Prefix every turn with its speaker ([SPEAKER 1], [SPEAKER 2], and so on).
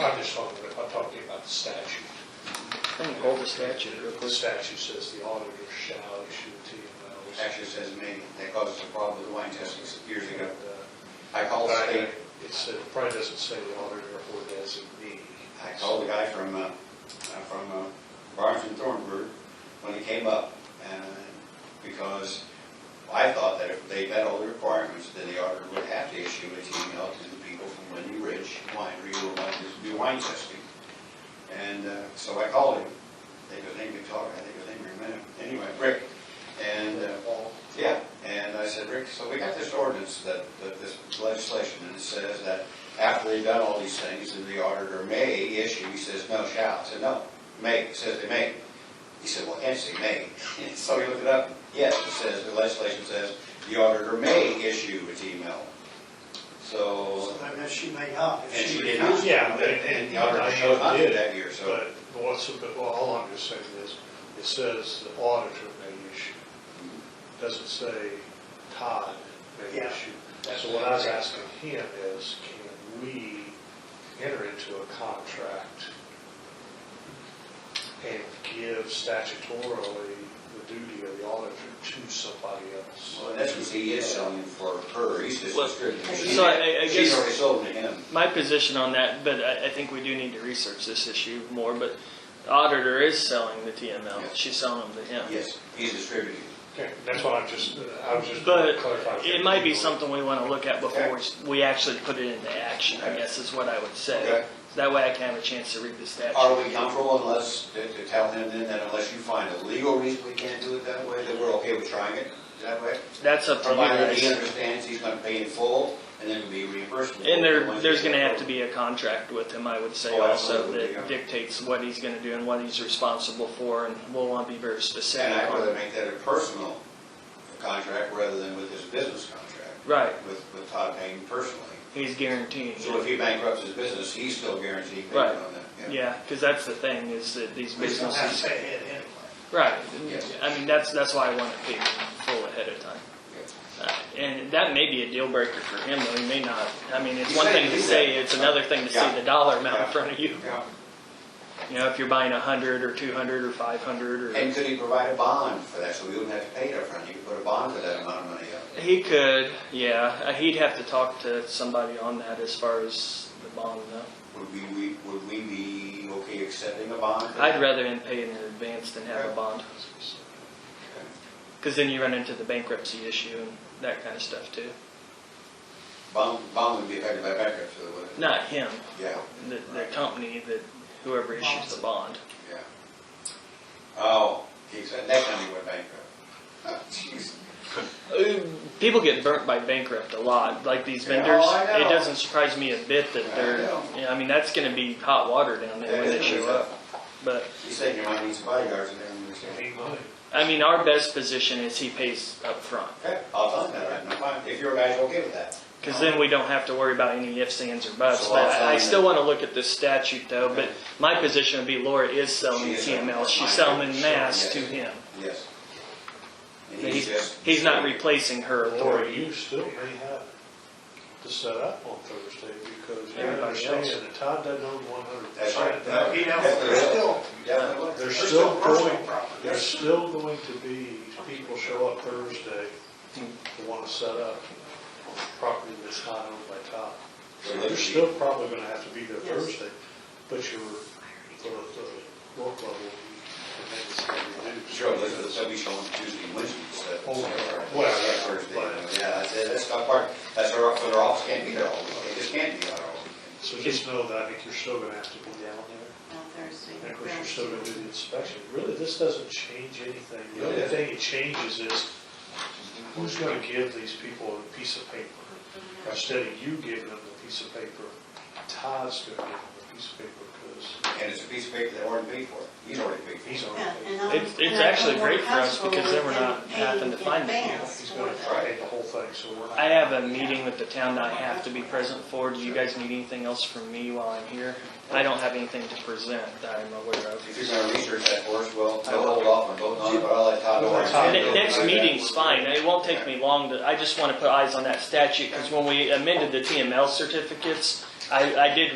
[SPEAKER 1] I'm just talking, I'm talking about the statute.
[SPEAKER 2] Let me hold the statute real
[SPEAKER 1] The
[SPEAKER 2] quick.
[SPEAKER 1] statute says the auditor shall issue TMLs.
[SPEAKER 3] Actually, it says me, that causes a problem with wine testing years ago.
[SPEAKER 1] And, uh,
[SPEAKER 3] I called
[SPEAKER 1] but I-
[SPEAKER 3] state,
[SPEAKER 1] It's, it probably doesn't say the auditor or designee.
[SPEAKER 3] I called the guy from, uh, uh, from uh, Barnes and Thornburg when it came up, and, because I thought that if they met all the requirements, then the auditor would have to issue a TML to the people from Wendy Ridge Winery who wanted to do wine testing. And, uh, so I called him, they go, they can talk, I think his name is Rick, anyway, Rick, and, uh,
[SPEAKER 1] All
[SPEAKER 3] Yeah, and I said, Rick, so we got this ordinance that, that this legislation, and it says that after they've done all these things, then the auditor may issue, he says, no, shall, I said, no, may, it says they may. He said, well, actually, may, so he looked it up, yes, it says, the legislation says, the auditor may issue its email. So,
[SPEAKER 4] So I guess she may not. if
[SPEAKER 3] and she did not.
[SPEAKER 1] Yeah,
[SPEAKER 3] And
[SPEAKER 1] and- and-
[SPEAKER 3] the auditor chose not to that year, so,
[SPEAKER 1] But what's, but all I'm just saying is, it says the auditor may issue. Doesn't say Todd may
[SPEAKER 4] Yeah.
[SPEAKER 1] issue. So what I was asking him is, can we enter into a contract and give statutorily the duty of the auditor to somebody else?
[SPEAKER 3] well, in essence, he is selling for her, he's just
[SPEAKER 2] Well,
[SPEAKER 3] distributing.
[SPEAKER 2] so I- I
[SPEAKER 3] She's
[SPEAKER 2] guess-
[SPEAKER 3] already sold to him.
[SPEAKER 2] My position on that, but I, I think we do need to research this issue more, but the auditor is selling the
[SPEAKER 3] Yeah.
[SPEAKER 2] TML. She's selling them to him.
[SPEAKER 3] Yes, he's distributing.
[SPEAKER 1] Okay, that's what I'm just, I was just
[SPEAKER 2] But
[SPEAKER 1] clarifying.
[SPEAKER 2] it might be something we want to look at before we actually put it into action, I guess is what I would say.
[SPEAKER 3] Okay.
[SPEAKER 2] That way I can have a chance to read the
[SPEAKER 3] Are
[SPEAKER 2] statute.
[SPEAKER 3] we comfortable unless, to to tell him then that unless you find a legal reason we can't do it that way, that we're okay with trying it that way?
[SPEAKER 2] That's up to you
[SPEAKER 3] Provided he
[SPEAKER 2] guys.
[SPEAKER 3] understands he's gonna pay in full and then be reimbursed.
[SPEAKER 2] And there, there's gonna have to be a contract with him, I would say
[SPEAKER 3] Oh,
[SPEAKER 2] also,
[SPEAKER 3] absolutely, yeah.
[SPEAKER 2] that dictates what he's gonna do and what he's responsible for, and we'll wanna be very
[SPEAKER 3] And
[SPEAKER 2] specific
[SPEAKER 3] I'd rather
[SPEAKER 2] on.
[SPEAKER 3] make that a personal contract rather than with his business contract,
[SPEAKER 2] Right,
[SPEAKER 3] with, with Todd paying personally.
[SPEAKER 2] he's guaranteeing.
[SPEAKER 3] So if he bankrupts his business, he's still guaranteed payment
[SPEAKER 2] Right.
[SPEAKER 3] on that.
[SPEAKER 2] Yeah, because that's the thing, is that these
[SPEAKER 4] We don't have to
[SPEAKER 2] businesses,
[SPEAKER 4] pay it anyway.
[SPEAKER 2] right,
[SPEAKER 3] Yes.
[SPEAKER 2] I mean, that's, that's why I want to pay full ahead of time. Uh, And that may be a deal breaker for him, though, he may not, I mean, it's
[SPEAKER 3] He's
[SPEAKER 2] one
[SPEAKER 3] saying
[SPEAKER 2] thing to
[SPEAKER 3] he's
[SPEAKER 2] say,
[SPEAKER 3] saying-
[SPEAKER 2] it's another thing to see
[SPEAKER 3] Yeah.
[SPEAKER 2] the dollar amount in
[SPEAKER 3] Yeah.
[SPEAKER 2] front of you.
[SPEAKER 3] Yeah.
[SPEAKER 2] You know, if you're buying a hundred or two hundred or five hundred or.
[SPEAKER 3] And could he provide a bond for that, so we wouldn't have to pay it upfront, he could put a bond for that amount of money up?
[SPEAKER 2] He could, yeah. Uh, He'd have to talk to somebody on that as far as the bond, though.
[SPEAKER 3] Would we, we- would we be okay accepting a bond?
[SPEAKER 2] I'd rather him pay it in advance than have a bond, because then you run into the bankruptcy issue and that kind of stuff too.
[SPEAKER 3] Bond, bond would be affected by bankruptcy, wouldn't it?
[SPEAKER 2] Not him,
[SPEAKER 3] Yeah,
[SPEAKER 2] the, the company that whoever issues the bond.
[SPEAKER 3] yeah. Oh, geez, that that company went bankrupt. Oh, Jeez.
[SPEAKER 2] Uh, People get burnt by bankrupt a lot, like these
[SPEAKER 3] Yeah,
[SPEAKER 2] vendors.
[SPEAKER 3] oh, I know.
[SPEAKER 2] It doesn't surprise me a bit that
[SPEAKER 3] I
[SPEAKER 2] they're.
[SPEAKER 3] know.
[SPEAKER 2] Yeah, I mean that's going to be hot water down there
[SPEAKER 3] That
[SPEAKER 2] when
[SPEAKER 3] is
[SPEAKER 2] they show
[SPEAKER 3] pretty
[SPEAKER 2] up.
[SPEAKER 3] tough.
[SPEAKER 2] But
[SPEAKER 3] He's saying you might need some bodyguards in there, I'm just kidding.
[SPEAKER 2] I mean, our best position is he pays up front.
[SPEAKER 3] Okay, I'll tell him that right now, fine, if your guys are okay with that.
[SPEAKER 2] Because then we don't have to worry about any ifs, ands, or buts.
[SPEAKER 3] So
[SPEAKER 2] But
[SPEAKER 3] I'll
[SPEAKER 2] I I
[SPEAKER 3] sign
[SPEAKER 2] still
[SPEAKER 3] it.
[SPEAKER 2] want to look at this statute though, but
[SPEAKER 3] Okay.
[SPEAKER 2] my position would be Laura is selling
[SPEAKER 3] She
[SPEAKER 2] the
[SPEAKER 3] is selling
[SPEAKER 2] TML.
[SPEAKER 3] it.
[SPEAKER 2] She's selling
[SPEAKER 3] Fine.
[SPEAKER 2] in mass
[SPEAKER 3] Sure,
[SPEAKER 2] to
[SPEAKER 3] yes.
[SPEAKER 2] him.
[SPEAKER 3] Yes. And he's
[SPEAKER 2] He's,
[SPEAKER 3] just.
[SPEAKER 2] he's not replacing her
[SPEAKER 1] Or
[SPEAKER 2] authority.
[SPEAKER 1] you still may have to set up on Thursday because you
[SPEAKER 2] Everybody else.
[SPEAKER 1] understand that Todd doesn't own one hundred
[SPEAKER 3] That's right.
[SPEAKER 1] percent.
[SPEAKER 4] No, he don't,
[SPEAKER 3] Definitely.
[SPEAKER 4] they're still,
[SPEAKER 3] Definitely.
[SPEAKER 1] There's
[SPEAKER 4] There's
[SPEAKER 1] still
[SPEAKER 4] still personal
[SPEAKER 1] going,
[SPEAKER 4] property.
[SPEAKER 1] there's still going to be, people show up Thursday to want to set up on property that's not owned by Todd.
[SPEAKER 3] So
[SPEAKER 1] You're
[SPEAKER 3] let's see.
[SPEAKER 1] still probably gonna have to be there
[SPEAKER 4] Yes.
[SPEAKER 1] Thursday, but your, the, the work level, and then it's gonna reduce.
[SPEAKER 3] Sure, those are the stuff we show on Tuesday, and Wednesday, so.
[SPEAKER 1] Oh,
[SPEAKER 3] Or-
[SPEAKER 1] well,
[SPEAKER 3] Yeah, Thursday, yeah, that's, that's not part, that's our, so their office can't be there all week, they just can't be there all week.
[SPEAKER 1] So just know that I think you're still gonna have to be down there.
[SPEAKER 5] on Thursday.
[SPEAKER 1] And of course, you're still gonna do the inspection. Really, this doesn't change anything. The
[SPEAKER 3] Yeah.
[SPEAKER 1] only thing it changes is who's gonna give these people a piece of paper? Instead of you giving them the piece of paper, Todd's gonna give them the piece of paper because
[SPEAKER 3] And it's a piece of paper that Warren paid for, he's already paid for it.
[SPEAKER 1] he's on
[SPEAKER 5] Yeah, and
[SPEAKER 1] it.
[SPEAKER 5] I'm-
[SPEAKER 2] It's- it's
[SPEAKER 5] and I'm
[SPEAKER 2] actually
[SPEAKER 5] more
[SPEAKER 2] great for us
[SPEAKER 5] comfortable
[SPEAKER 2] because then we're
[SPEAKER 5] with
[SPEAKER 2] not
[SPEAKER 5] them
[SPEAKER 2] having to
[SPEAKER 5] paying
[SPEAKER 2] find the
[SPEAKER 5] in
[SPEAKER 2] people.
[SPEAKER 5] advance
[SPEAKER 1] He's
[SPEAKER 5] for
[SPEAKER 1] gonna
[SPEAKER 5] that.
[SPEAKER 1] pay the whole thing, so we're not.
[SPEAKER 2] I have a meeting with the town that I have to be present for. Do you guys need anything else from me while I'm here? I don't have anything to present that I'm aware of.
[SPEAKER 3] If you're gonna research that for us, well,
[SPEAKER 2] I will.
[SPEAKER 3] we'll hold off on voting on it, but I'll let Todd know.
[SPEAKER 1] Well, Todd-
[SPEAKER 2] Ne- Next
[SPEAKER 3] Okay.
[SPEAKER 2] meeting's fine, it won't take me long, to- I just want to put eyes on that statute, because when we amended the TML certificates, I, I did